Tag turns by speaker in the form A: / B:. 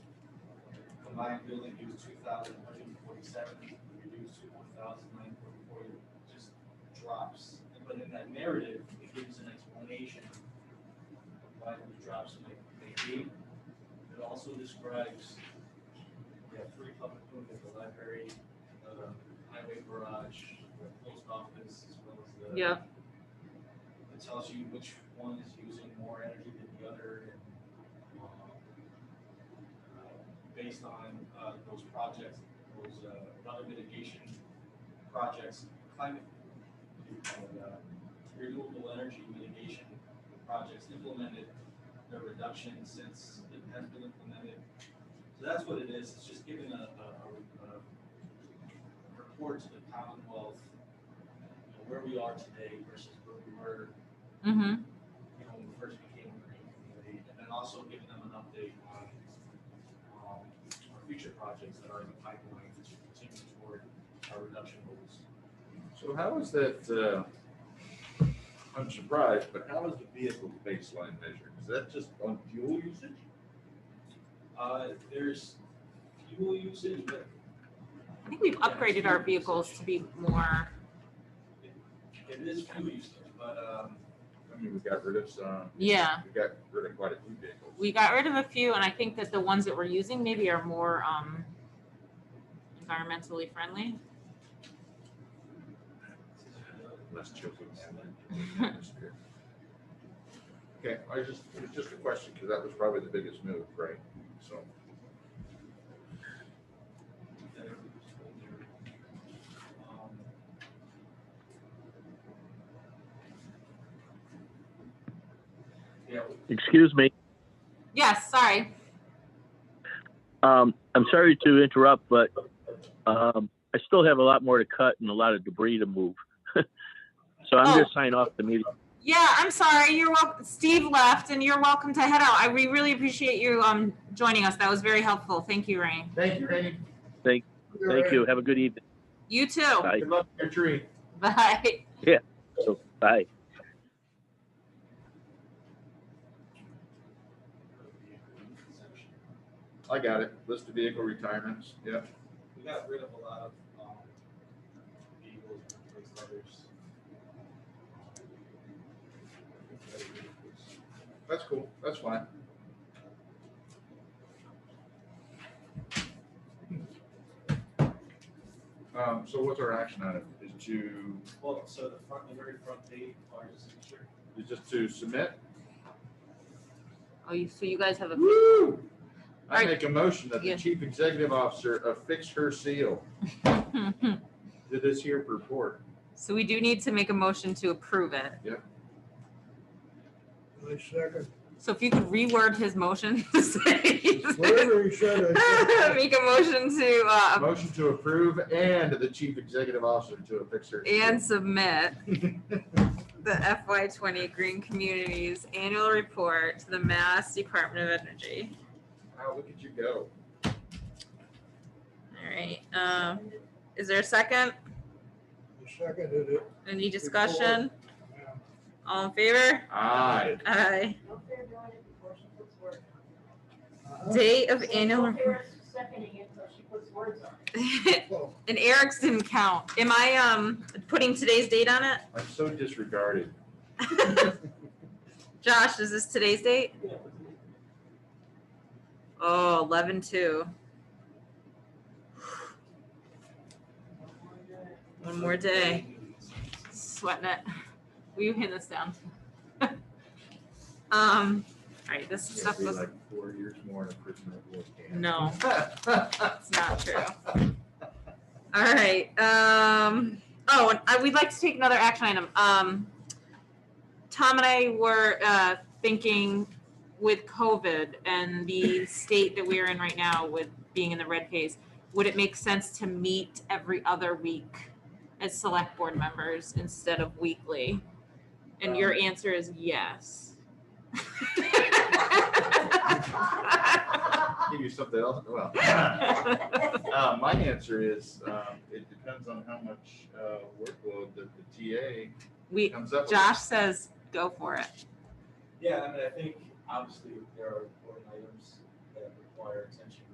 A: combined building use two thousand two forty-seven, reduced to one thousand nine forty-four, it just drops. But in that narrative, it gives an explanation of why the drops may, may be. It also describes, we have three public buildings, the library, the highway garage, the post office, as well as the.
B: Yeah.
A: It tells you which one is using more energy than the other and, um, uh, based on, uh, those projects, those, uh, other mitigation projects, climate, and, uh, renewable energy mitigation projects implemented, the reduction since it has been implemented. So that's what it is, it's just giving a, a, a, a report to the Commonwealth, you know, where we are today versus where we were you
B: Mm-hmm.
A: know, when we first became a green community, and then also giving them an update on, um, our future projects that are in the pipeline to continue toward our reduction goals.
C: So how is that, uh, I'm surprised, but how is the vehicle baseline measured? Is that just on fuel usage?
A: Uh, there's fuel usage, but
B: I think we've upgraded our vehicles to be more,
A: it is fuel usage, but, um,
C: I mean, we got rid of some.
B: Yeah.
C: We got rid of quite a few vehicles.
B: we got rid of a few and I think that the ones that we're using maybe are more, um, environmentally friendly.
C: Less children. Okay, I just, it was just a question, because that was probably the biggest move, right? So,
A: that are older. Um, Yeah,
D: Excuse me.
B: Yes, sorry.
D: Um, I'm sorry to interrupt, but um, I still have a lot more to cut and a lot of debris to move. so I'm going
B: Oh.
D: to sign off the meeting.
B: Yeah, I'm sorry. You're welcome. Steve left and you're welcome to head out. I, we really appreciate you, um, joining us. That was very helpful. Thank you, Rain.
E: Thank you, Randy.
D: Thank- Thank you. Have a good evening.
B: You too.
D: Bye.
E: Good luck with your tree.
B: Bye.
D: Bye.
A: we-
C: I got it, list of vehicle retirements, yeah.
A: We got rid of a lot of, um, vehicles and replaced others.
C: That's cool, that's fine. Um, so what's our action item? Is to,
A: Well, so the front, the very front page, part is secure.
C: is just to submit?
B: Oh, you, so you guys have a,
C: Woo! I
B: Alright.
C: make a motion that
B: Yeah.
C: the chief executive officer affix her seal
B: hmm,
C: to this here report.
B: so we do need to make a motion to approve it.
F: I second.
B: So if you could reword his motion to say.
F: Whatever he said, I second.
B: Make a motion to, uh,
C: Motion to approve and the chief executive officer to affix her. seal.
B: and submit the FY twenty Green Communities Annual Report to the Mass Department of Energy.
C: Wow, look at you go.
B: All right, um, is there a second?
F: I seconded it.
B: Any discussion? All in favor?
C: Aye.
B: Aye.
G: Nope, they're doing it before she puts words on
F: Uh-huh.
B: Date of
G: it.
B: annual,
G: Don't care if she's Seconding it until she puts words on it.
B: and
F: Well,
B: Eric's didn't count. Am I, um, putting today's date on it?
C: I'm so disregarded.
B: Josh, is this today's date? Oh, eleven two. One more day. Sweating it. Will you hand this down? Um, all right, this
C: It's gonna
B: stuff
C: be
B: was,
C: like four years more in a prison than it was.
B: no, it's not true. All right, um, oh, and I, we'd like to take another action item. Um, Tom and I were, uh, thinking with COVID and the state that we're in right now with being in the red phase, would it make sense to meet every other week as select board members instead of weekly? And your answer is yes.
C: Give you something else, well. Uh, my answer is, um, it depends on how much, uh, workload that the TA
B: We,
C: comes up with.
B: Josh says, go for it.
A: Yeah, I mean, I think obviously there are important items that require attention